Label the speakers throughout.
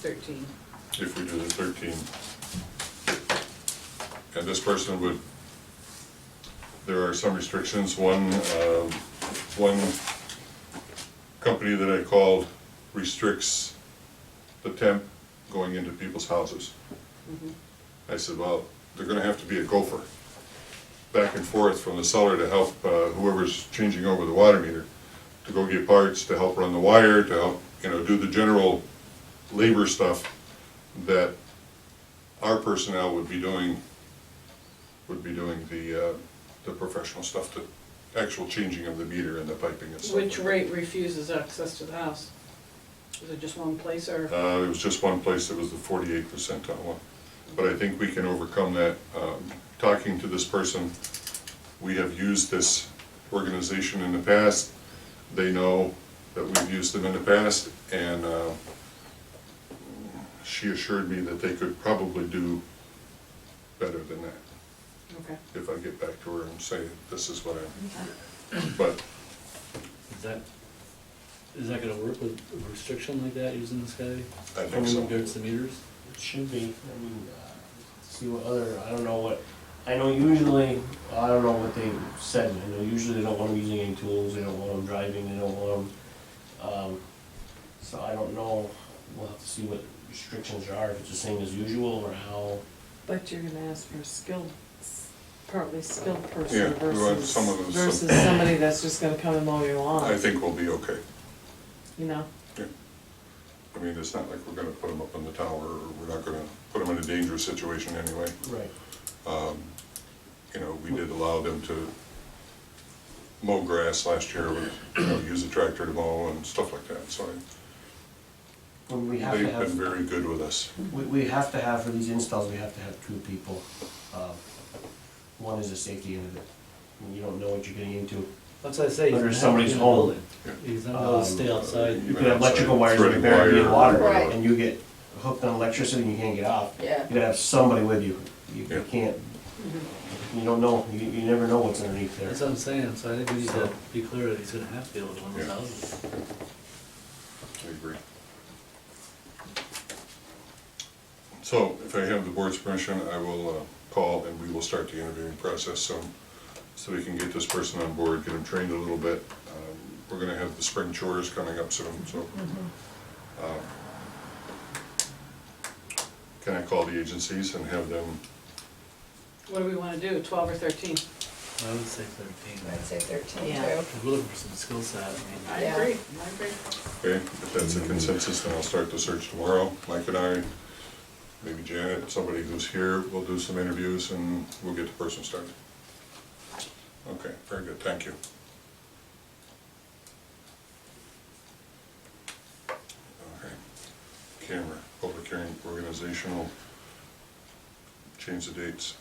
Speaker 1: thirteen.
Speaker 2: if we do the thirteen. And this person would, there are some restrictions, one, um, one company that I called restricts the temp going into people's houses. I said, well, they're gonna have to be a gopher, back and forth from the cellar to help uh, whoever's changing over the water meter, to go get parts, to help run the wire, to help, you know, do the general labor stuff that our personnel would be doing, would be doing the, uh, the professional stuff, the actual changing of the meter and the piping and stuff.
Speaker 1: Which
Speaker 2: like that.
Speaker 1: rate refuses access to the house? Is it just one place or?
Speaker 2: Uh, There was just one place that was the forty-eight percentile one, but I think we can overcome that. Um, Talking to this person, we have used this organization in the past. They know that we've used them in the past, and uh, she assured me that they could probably do better than that,
Speaker 1: Okay.
Speaker 2: if I get back to her and say, this is what I, but
Speaker 3: Is that, is that gonna work with a restriction like that using this guy?
Speaker 2: I think so.
Speaker 3: Only regards to meters?
Speaker 4: It should be, I mean, uh, see what other, I don't know what, I know usually, I don't know what they said, I know usually they don't want them using any tools, they don't want them driving, they don't want them, um, so I don't know, we'll have to see what restrictions there are, if it's the same as usual, or how,
Speaker 5: But you're gonna ask for a skilled, s- partly skilled
Speaker 2: Yeah,
Speaker 5: person
Speaker 2: we want
Speaker 5: versus,
Speaker 2: someone who's-
Speaker 5: versus somebody that's just gonna come and mow your
Speaker 2: I
Speaker 5: lawn,
Speaker 2: think we'll be okay.
Speaker 5: you know?
Speaker 2: I mean, it's not like we're gonna put them up in the tower, or we're not gonna put them in a dangerous situation anyway.
Speaker 4: right,
Speaker 2: Um, You know, we did allow them to mow grass last year, with, you know, use a tractor to mow and stuff like that, so I-
Speaker 4: when we have to
Speaker 2: they've
Speaker 4: have.
Speaker 2: been very good with us.
Speaker 4: We, we have to have, for these installs, we have to have two people. Um, One is a safety end of it. I mean, You don't know what you're getting into.
Speaker 3: That's what I say. he's
Speaker 4: Under
Speaker 3: not
Speaker 4: somebody's
Speaker 3: in a
Speaker 4: home.
Speaker 3: building. He's not gonna stay
Speaker 2: Um,
Speaker 3: outside.
Speaker 4: You
Speaker 2: Even
Speaker 4: could have electrical
Speaker 2: outside,
Speaker 4: wires that are
Speaker 2: threading
Speaker 4: buried in
Speaker 2: wire or
Speaker 4: water,
Speaker 2: whatever.
Speaker 4: and you get hooked on electricity and you can't get off. You
Speaker 5: Yeah.
Speaker 4: gotta have somebody with you. You
Speaker 2: Yeah.
Speaker 4: you can't, you don't know, you, you never know what's underneath
Speaker 3: That's
Speaker 4: there.
Speaker 3: what I'm saying, so I think we need to
Speaker 4: So-
Speaker 3: be clear that he's gonna have to deal with one of those
Speaker 2: Yeah.
Speaker 3: houses.
Speaker 2: I agree. So if I have the board's permission, I will uh, call and we will start the interviewing process so, so we can get this person on board, get him trained a little bit. Um, We're gonna have the spring chores coming up soon, so. uh, Can I call the agencies and have them,
Speaker 1: What do we wanna do, twelve or thirteen?
Speaker 3: I would say thirteen.
Speaker 6: I'd say thirteen
Speaker 5: Yeah.
Speaker 6: too.
Speaker 3: We're looking for some skill set, I
Speaker 1: I
Speaker 3: mean,
Speaker 6: Yeah.
Speaker 1: agree, I agree.
Speaker 2: okay, if that's a consensus, then I'll start the search tomorrow. Mike and I, maybe Janet, somebody who's here, we'll do some interviews and we'll get the person started. Okay, very good, thank you. Okay, camera, public hearing, organizational, change the dates.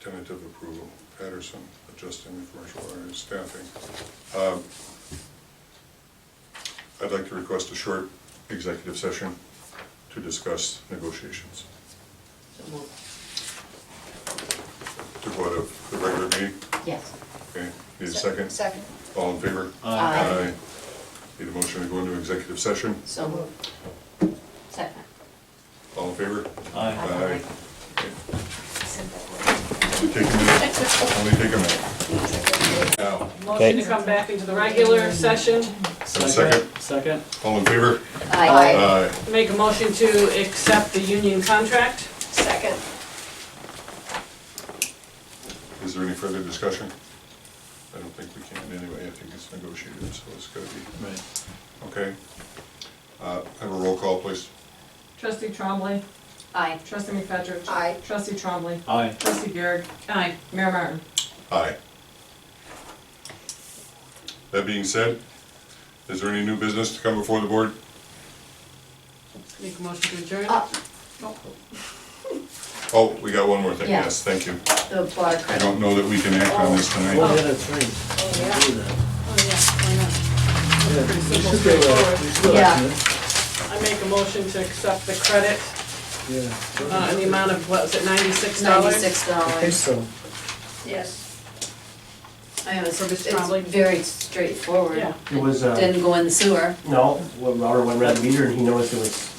Speaker 2: Tentative approval, Patterson, adjusting the commercial area staffing. Um, I'd like to request a short executive session to discuss negotiations. To go out of the regular meeting,
Speaker 7: Yes.
Speaker 2: okay, need a second?
Speaker 6: Second.
Speaker 2: All in favor?
Speaker 7: Aye.
Speaker 2: Need a motion to go into executive session?
Speaker 7: So moved. Second.
Speaker 2: All in favor?
Speaker 4: Aye.
Speaker 2: Aye.
Speaker 6: Said that word.
Speaker 2: Only take a minute. Only take a minute. Now,
Speaker 1: Motion to come back into the regular session,
Speaker 2: second.
Speaker 3: Second?
Speaker 2: all in favor?
Speaker 6: Aye.
Speaker 2: Aye.
Speaker 1: make a motion to accept the union contract.
Speaker 6: Second.
Speaker 2: Is there any further discussion? I don't think we can anyway, I think it's negotiated, so it's gotta be,
Speaker 3: Right.
Speaker 2: okay. Uh, Have a roll call, please.
Speaker 8: Trustee Trombley.
Speaker 7: Aye.
Speaker 8: Trustee McFetrich.
Speaker 6: Aye.
Speaker 8: Trustee Trombley.
Speaker 3: Aye.
Speaker 8: Trustee Garrett. Aye. Mayor Martin.
Speaker 2: Aye. That being said, is there any new business to come before the board?
Speaker 1: Make a motion to adjourn.
Speaker 7: Uh,
Speaker 2: Oh, we got one more thing,
Speaker 7: Yeah.
Speaker 2: yes, thank you.
Speaker 7: the water
Speaker 2: I
Speaker 7: credit.
Speaker 2: don't know that we can act on this
Speaker 3: Oh,
Speaker 2: tonight.
Speaker 3: yeah, that's right.
Speaker 6: yeah.
Speaker 3: Do that.
Speaker 1: Oh, yeah, why not?
Speaker 3: Yeah,
Speaker 1: Pretty
Speaker 3: we
Speaker 1: simple,
Speaker 3: should go, uh, we
Speaker 1: straightforward.
Speaker 3: should go
Speaker 7: Yeah.
Speaker 3: action it.
Speaker 1: I make a motion to accept the credit,
Speaker 3: Yeah.
Speaker 1: uh, in the amount of, what was it, ninety-six dollars?
Speaker 7: Ninety-six dollars.
Speaker 6: Yes.
Speaker 8: I know, so it's,
Speaker 9: Probably.
Speaker 8: it's very straightforward.
Speaker 1: Yeah.
Speaker 4: It was, uh,
Speaker 8: Didn't go in the sewer.
Speaker 4: no, Robert went around the meter and he noticed it was